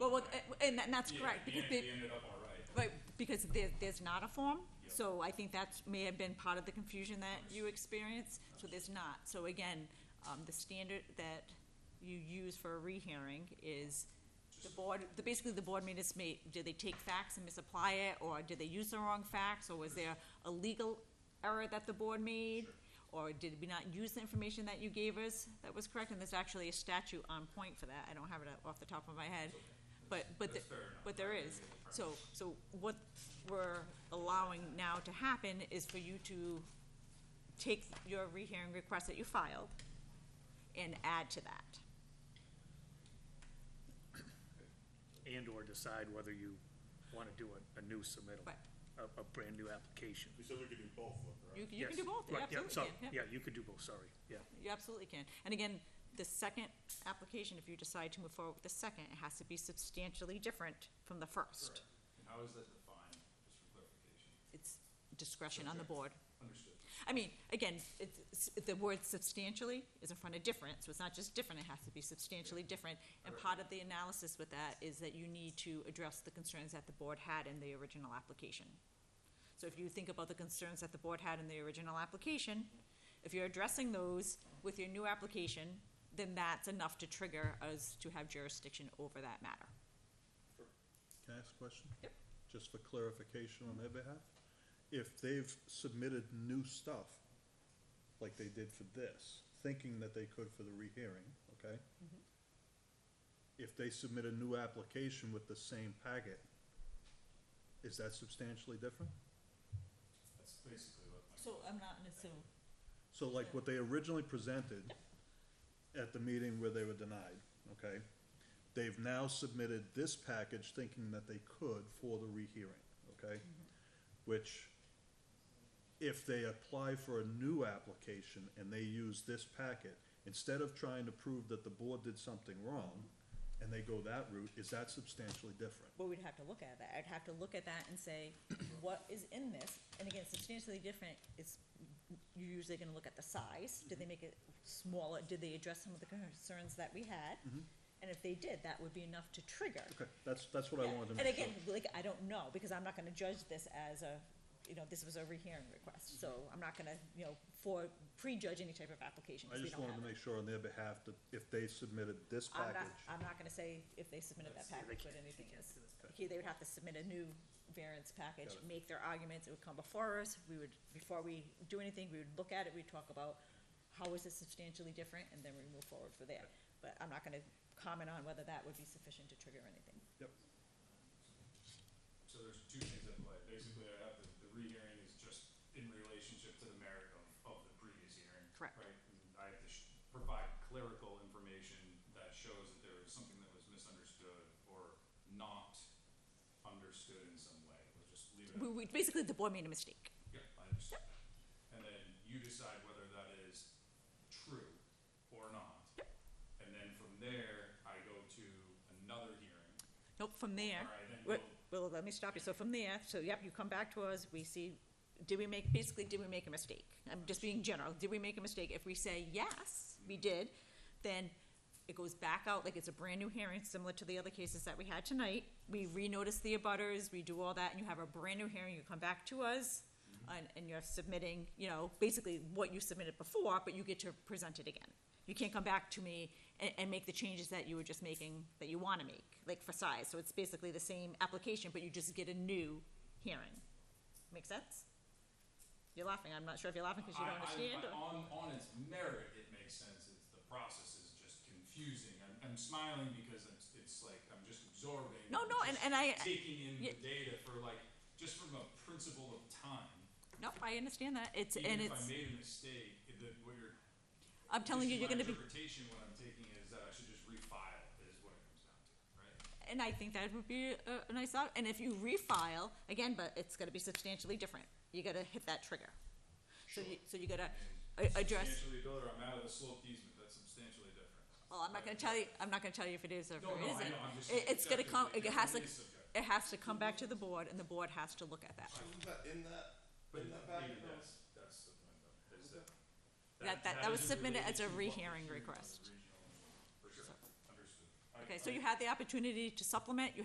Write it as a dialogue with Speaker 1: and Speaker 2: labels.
Speaker 1: then eh, that- that's correct,
Speaker 2: We
Speaker 1: because
Speaker 2: en-
Speaker 1: they,
Speaker 2: we ended up all right.
Speaker 1: Right, because there, there's not a form,
Speaker 2: Yep.
Speaker 1: so I think that's, may have been part of the confusion that you experienced, so there's not. So again, um, the standard that you use for a rehearing is the board, the, basically the board minutes may, did they take facts and misapply it, or did they use the wrong facts, or was there a legal error that the board made? Or did we not use the information that you gave us that was correct, and there's actually a statute on point for that, I don't have it off the top of my head. But, but, the-
Speaker 2: That's fair enough.
Speaker 1: but there is. So, so what we're allowing now to happen is for you to take your rehearing request that you filed and add to that.
Speaker 3: and/or decide whether you want to do a, a new submittal,
Speaker 1: Right.
Speaker 3: a, a brand-new application.
Speaker 2: We said we could do both, though,
Speaker 1: You,
Speaker 2: right?
Speaker 1: you can
Speaker 3: Yes,
Speaker 1: do both, you
Speaker 3: right, yeah,
Speaker 1: absolutely
Speaker 3: sorry,
Speaker 1: can, yeah,
Speaker 3: Yeah, you could do both, sorry, yeah.
Speaker 1: you absolutely can. And again, the second application, if you decide to move forward with the second, it has to be substantially different from the first.
Speaker 2: Correct. And how is that defined, just for clarification?
Speaker 1: It's discretion on the
Speaker 2: Subject.
Speaker 1: board.
Speaker 2: Understood.
Speaker 1: I mean, again, it's, it's- the word substantially is in front of different, so it's not just different, it has to be substantially different. And part of the analysis with that is that you need to address the concerns that the board had in the original application. So if you think about the concerns that the board had in the original application, if you're addressing those with your new application, then that's enough to trigger us to have jurisdiction over that matter.
Speaker 4: Can I ask a question?
Speaker 1: Yep.
Speaker 4: Just for clarification on their behalf? If they've submitted new stuff, like they did for this, thinking that they could for the rehearing, okay? If they submit a new application with the same packet, is that substantially different?
Speaker 2: That's basically what my.
Speaker 1: So I'm not, so,
Speaker 4: So like what they originally presented at the meeting where they were denied, okay? They've now submitted this package thinking that they could for the rehearing, okay? Which, if they apply for a new application and they use this packet, instead of trying to prove that the board did something wrong, and they go that route, is that substantially different?
Speaker 1: Well, we'd have to look at that. I'd have to look at that and say, what is in this? And again, substantially different, it's, you're usually gonna look at the size. Did they make it smaller? Did they address some of the concerns that we had?
Speaker 4: Mm-hmm.
Speaker 1: And if they did, that would be enough to trigger.
Speaker 4: Okay, that's, that's what I wanted to
Speaker 1: And
Speaker 4: make sure.
Speaker 1: again, like, I don't know, because I'm not gonna judge this as a, you know, this was a rehearing request, so I'm not gonna, you know, for, prejudge any type of application,
Speaker 4: I
Speaker 1: because we
Speaker 4: just
Speaker 1: don't have
Speaker 4: wanted to
Speaker 1: it.
Speaker 4: make sure on their behalf that if they submitted this
Speaker 1: I'm not,
Speaker 4: package.
Speaker 1: I'm not gonna say if they submitted that package, what anything is. Here, they would have to submit a new variance package,
Speaker 4: Got it.
Speaker 1: make their arguments, it would come before us, we would, before we do anything, we would look at it, we'd talk about how is it substantially different, and then we move forward for there. But I'm not gonna comment on whether that would be sufficient to trigger anything.
Speaker 4: Yep.
Speaker 2: So there's two things at play. Basically, I have the, the rehearing is just in relationship to the merit of, of the previous hearing.
Speaker 1: Correct.
Speaker 2: Right? And I have to sh- provide clerical information that shows that there was something that was misunderstood or not understood in some way. We'll just leave it at
Speaker 1: We, we, basically, the board made a mistake.
Speaker 2: Yep, I understand. And then you decide whether that is true or not. And then from there, I go to another hearing.
Speaker 1: Nope, from there,
Speaker 2: All right, then
Speaker 1: well, well, let me stop you, so from there, so yep, you come back to us, we see, did we make, basically, did we make a mistake? I'm just being general, did we make a mistake? If we say yes, we did, then it goes back out, like it's a brand-new hearing, similar to the other cases that we had tonight. We renotice the abutters, we do all that, and you have a brand-new hearing, you come back to us, and, and you're submitting, you know, basically what you submitted before, but you get to present it again. You can't come back to me and, and make the changes that you were just making, that you wanna make, like for size, so it's basically the same application, but you just get a new hearing. Make sense? You're laughing, I'm not sure if you're laughing because you
Speaker 2: I-
Speaker 1: don't
Speaker 2: I-
Speaker 1: understand,
Speaker 2: I-
Speaker 1: or,
Speaker 2: On, on its merit, it makes sense, it's, the process is just confusing, I'm, I'm smiling because it's, it's like, I'm just absorbing.
Speaker 1: No,
Speaker 2: I'm
Speaker 1: no, and-
Speaker 2: just
Speaker 1: and I-
Speaker 2: Taking in
Speaker 1: yeah.
Speaker 2: the data for like, just from a principle of time,
Speaker 1: nope, I understand that, it's, and
Speaker 2: even if I
Speaker 1: it's,
Speaker 2: made a mistake, it- that what you're
Speaker 1: I'm telling you, you're gonna be.
Speaker 2: My interpretation, what I'm taking is that I should just refile, is what it comes down to, right?
Speaker 1: And I think that would be a, a nice out, and if you refile, again, but it's gonna be substantially different, you gotta hit that trigger. So you, so you gotta a- address,
Speaker 2: Substantially builder, I'm out of the sloped easement, that's substantially different.
Speaker 1: well, I'm not gonna tell you, I'm not gonna tell you if it is or if it
Speaker 2: No, no, I
Speaker 1: isn't.
Speaker 2: know, I'm just
Speaker 1: It, it's gonna come, it
Speaker 2: subjective,
Speaker 1: has to,
Speaker 2: it is
Speaker 1: it
Speaker 2: subjective.
Speaker 1: has to come back to the board, and the board has to look at that.
Speaker 5: Wasn't that in that,
Speaker 2: But
Speaker 5: in that packet?
Speaker 2: maybe that's, that's the point though, is that.
Speaker 1: That- that- that was
Speaker 2: isn't
Speaker 1: submitted as a
Speaker 2: related to what was
Speaker 1: rehearing
Speaker 2: hearing on the
Speaker 1: request.
Speaker 2: original one, For sure, understood. I-
Speaker 1: Okay, so
Speaker 2: I-
Speaker 1: you had the opportunity to supplement, you